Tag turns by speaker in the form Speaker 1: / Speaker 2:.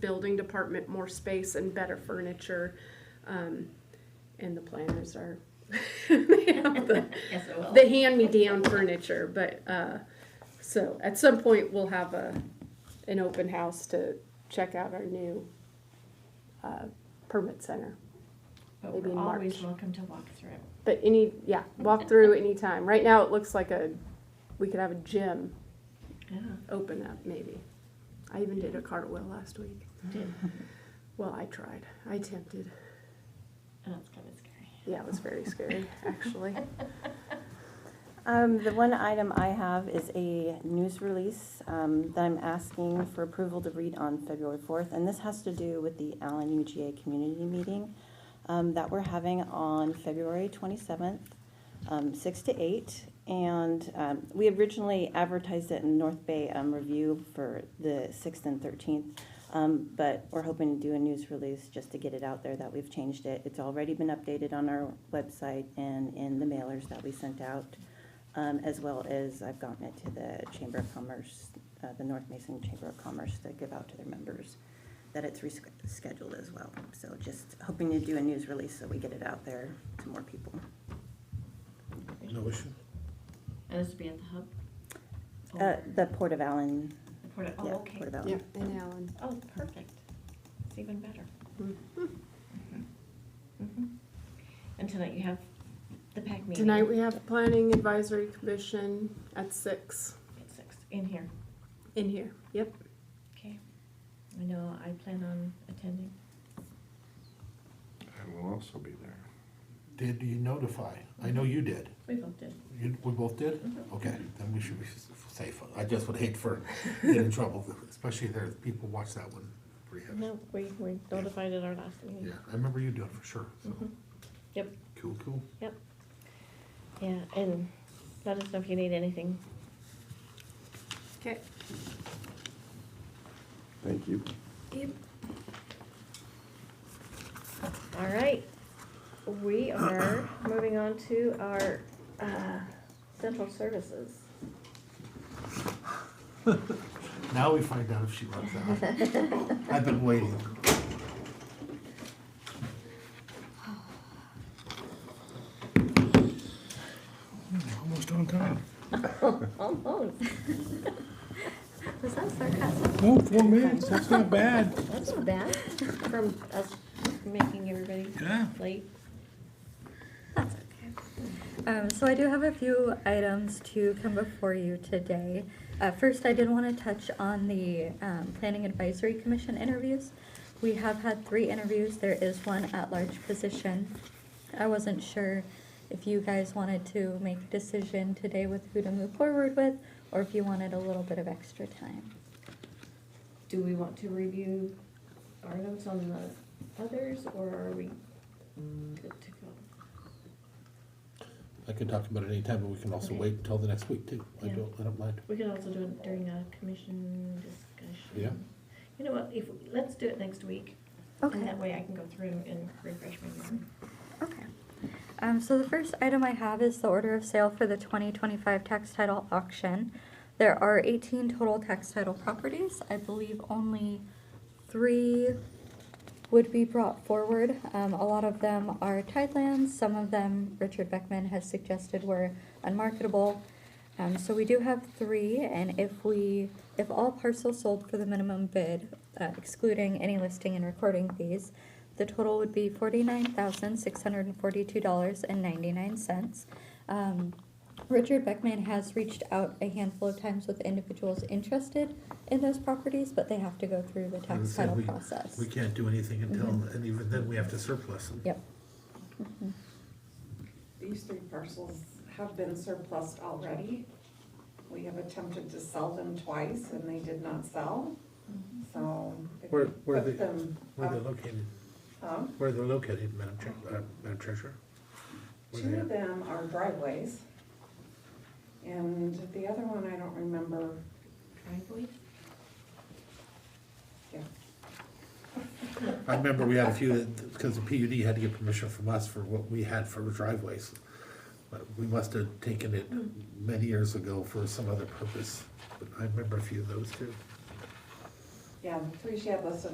Speaker 1: building department more space and better furniture. Um, and the planners are, they have the,
Speaker 2: Yes, it will.
Speaker 1: the hand-me-down furniture, but, uh, so at some point, we'll have a, an open house to check out our new, uh, permit center.
Speaker 2: But
Speaker 1: maybe
Speaker 2: we're
Speaker 1: in
Speaker 2: always
Speaker 1: March.
Speaker 2: welcome to walk through.
Speaker 1: But any, yeah, walk through anytime. Right now, it looks like a, we could have a gym
Speaker 2: Yeah,
Speaker 1: open up, maybe. I even did a cartwheel last week.
Speaker 2: did.
Speaker 1: Well, I tried, I attempted.
Speaker 2: Oh, it's kind of scary.
Speaker 1: Yeah, it was very scary, actually.
Speaker 3: Um, the one item I have is a news release, um, that I'm asking for approval to read on February fourth, and this has to do with the Allen UGA Community Meeting, um, that we're having on February twenty-seventh, um, six to eight. And, um, we originally advertised it in North Bay, um, Review for the sixth and thirteenth. Um, but we're hoping to do a news release just to get it out there that we've changed it. It's already been updated on our website and in the mailers that we sent out. Um, as well as I've gotten it to the Chamber of Commerce, uh, the North Mason Chamber of Commerce to give out to their members that it's rescheduled as well. So just hoping to do a news release so we get it out there to more people.
Speaker 4: No issue.
Speaker 2: And this would be at the hub? Or
Speaker 3: Uh, the Port of Allen,
Speaker 2: the Port of-
Speaker 3: yeah,
Speaker 2: Oh, okay.
Speaker 3: Port of Allen.
Speaker 1: and Alan.
Speaker 2: Oh, perfect. It's even better.
Speaker 3: Mm.
Speaker 2: Mm-hmm. Mhm. And tonight you have the PAC meeting.
Speaker 1: Tonight, we have Planning Advisory Commission at six
Speaker 2: At six, in here.
Speaker 1: in here. Yep.
Speaker 2: Okay. I know, I plan on attending.
Speaker 5: I will also be there.
Speaker 4: Did you notify? I know you did.
Speaker 2: We both did.
Speaker 4: You, we both did?
Speaker 2: Mhm.
Speaker 4: Okay, then we should be s- safe. I just would hate for getting in trouble, especially if there's people watch that one pretty heavy.
Speaker 2: No, we, we notified at our last meeting.
Speaker 4: Yeah, I remember you doing it for sure, so,
Speaker 2: Mhm. Yep,
Speaker 4: cool, cool.
Speaker 2: yeah, and let us know if you need anything.
Speaker 1: Okay.
Speaker 5: Thank you.
Speaker 2: All right, we are moving on to our uh, central services.
Speaker 4: Now we find out if she runs out. I've been waiting.
Speaker 6: Almost on time.
Speaker 2: Almost. Was that sarcasm?
Speaker 6: No, Oh, four minutes, that's not bad.
Speaker 2: That's not bad from us making everybody
Speaker 6: Yeah.
Speaker 2: late.
Speaker 7: That's okay. Um, so I do have a few items to come before you today. Uh, first, I did want to touch on the um, Planning Advisory Commission interviews. We have had three interviews. There is one at-large position. I wasn't sure if you guys wanted to make a decision today with who to move forward with, or if you wanted a little bit of extra time.
Speaker 2: Do we want to review our notes on the others, or are we good to go?
Speaker 4: I can talk about it anytime, but we can also
Speaker 2: Okay.
Speaker 4: wait until the next week too. I
Speaker 2: Yeah.
Speaker 4: don't, I don't mind.
Speaker 2: We could also do it during a commission discussion.
Speaker 4: Yeah.
Speaker 2: You know what, if, let's do it next week. And
Speaker 7: Okay.
Speaker 2: that way I can go through and refresh my memory.
Speaker 7: Okay. Um, so the first item I have is the order of sale for the 2025 tax title auction. There are 18 total tax title properties. I believe only three would be brought forward. Um, a lot of them are tidelands. Some of them Richard Beckman has suggested were unmarketable. Um, so we do have three, and if we, if all parcels sold for the minimum bid, uh, excluding any listing and recording fees, the total would be forty-nine thousand six hundred and forty-two dollars and ninety-nine cents. Um, Richard Beckman has reached out a handful of times with individuals interested in those properties, but they have to go through the tax
Speaker 4: So
Speaker 7: title
Speaker 4: we-
Speaker 7: process.
Speaker 4: We can't do anything until,
Speaker 2: Mm-hmm.
Speaker 7: Mhm.
Speaker 4: and even then, we have to surplus them.
Speaker 7: Yep.
Speaker 8: These three parcels have been surplused already. We have attempted to sell them twice and they did not sell, so. if
Speaker 4: Where-
Speaker 8: we
Speaker 4: where are
Speaker 8: put
Speaker 4: they-
Speaker 8: them
Speaker 4: Where they're
Speaker 8: up-
Speaker 4: located,
Speaker 8: up,
Speaker 4: where they're located, Madam Tre- uh, Madam Treasurer? Where they
Speaker 8: Two
Speaker 4: at?
Speaker 8: of them are driveways. And the other one, I don't remember,
Speaker 2: Driveway?
Speaker 8: yeah.
Speaker 4: I remember we had a few, because the PUD had to get permission from us for what we had for driveways. But we must have taken it
Speaker 2: Mm.
Speaker 4: many years ago for some other purpose, but I remember a few of those too.
Speaker 8: Yeah, the three she had listed